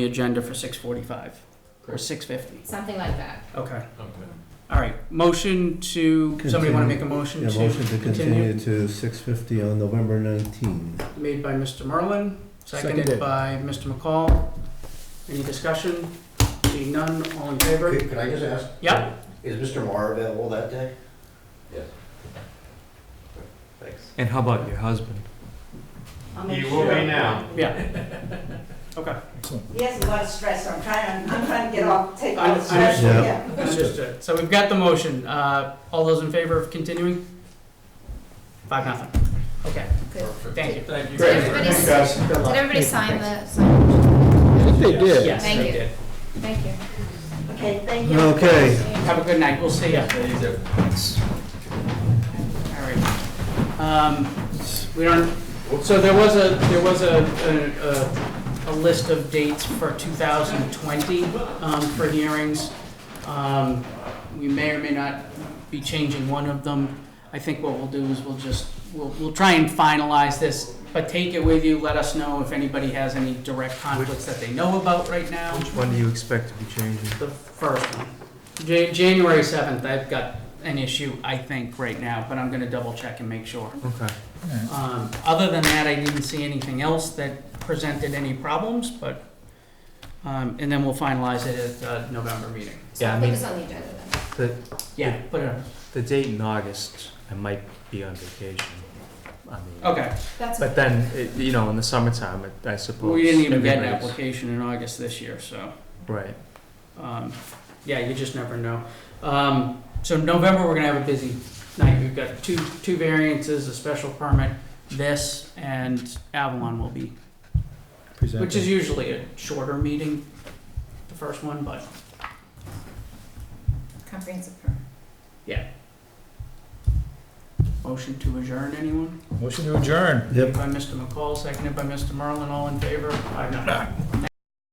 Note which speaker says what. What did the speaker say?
Speaker 1: the agenda for six forty-five or
Speaker 2: Correct.
Speaker 1: six fifty.
Speaker 3: Something like that.
Speaker 1: Okay,
Speaker 2: Okay.
Speaker 1: all right. Motion to, somebody want
Speaker 4: Continue.
Speaker 1: to make a motion
Speaker 4: Yeah,
Speaker 1: to
Speaker 4: motion to
Speaker 1: continue?
Speaker 4: continue to six fifty on November nineteenth.
Speaker 1: Made by Mr. Merlin, seconded
Speaker 5: Seconded.
Speaker 1: by Mr. McCall. Any discussion? Seeing none, all in favor?
Speaker 6: Could could I just ask,
Speaker 1: Yep,
Speaker 6: is Mr. Marr available that day?
Speaker 2: Yes.
Speaker 6: Thanks.
Speaker 5: And how about your husband?
Speaker 7: I'll make
Speaker 6: You
Speaker 7: sure.
Speaker 6: will be now.
Speaker 1: yeah. Okay,
Speaker 7: He has a lot of stress, so I'm trying, I'm trying to get off, take all
Speaker 1: I'm-
Speaker 7: the stress
Speaker 4: I'm-
Speaker 7: from
Speaker 4: Yeah.
Speaker 7: him.
Speaker 1: understood. So we've got the motion. Uh, all those in favor of continuing? Five, nothing. Okay,
Speaker 2: Perfect.
Speaker 1: thank you.
Speaker 2: Thank you.
Speaker 3: Did everybody,
Speaker 2: very much.
Speaker 3: did
Speaker 1: Good luck.
Speaker 3: everybody sign the, sign?
Speaker 5: I think they did.
Speaker 1: Yes,
Speaker 3: Thank
Speaker 1: they
Speaker 3: you.
Speaker 1: did.
Speaker 3: thank you.
Speaker 7: Okay, thank you.
Speaker 4: Okay.
Speaker 1: Have a good night, we'll see ya.
Speaker 2: Thank you, sir.
Speaker 1: All right. Um, We don't, so there was a, there was a, a, a- a list of dates for 2020 um, for hearings. Um, We may or may not be changing one of them. I think what we'll do is we'll just, we'll, we'll try and finalize this, but take it with you, let us know if anybody has any direct conflicts that they know about right now.
Speaker 5: Which one do you expect to be changing?
Speaker 1: The first one. Ja- January 7th, I've got an issue, I think, right now, but I'm gonna double check and make sure.
Speaker 5: Okay.
Speaker 1: Um, Other than that, I didn't see anything else that presented any problems, but, um, and then we'll finalize it at uh, November meeting.
Speaker 3: So
Speaker 5: Yeah, I
Speaker 3: I'll put
Speaker 5: mean-
Speaker 3: this on the agenda then.
Speaker 5: The,
Speaker 1: Yeah, put it on.
Speaker 5: the date in August, I might be on vacation. I mean,
Speaker 1: Okay,
Speaker 3: That's,
Speaker 5: But then, it, you know, in the summertime, it, I suppose.
Speaker 1: we didn't even get an
Speaker 5: everybody's-
Speaker 1: application in August this year, so,
Speaker 5: Right.
Speaker 1: um, yeah, you just never know. Um, So November, we're gonna have a busy night. We've got two, two variances, a special permit, this, and Avalon will be Which is usually a shorter meeting, the first one, but
Speaker 3: comprehensive permit.
Speaker 1: motion to adjourn, anyone?
Speaker 4: Yep.
Speaker 1: By Mr. McCall, seconded by Mr. Merlin, all in favor? Aye, no.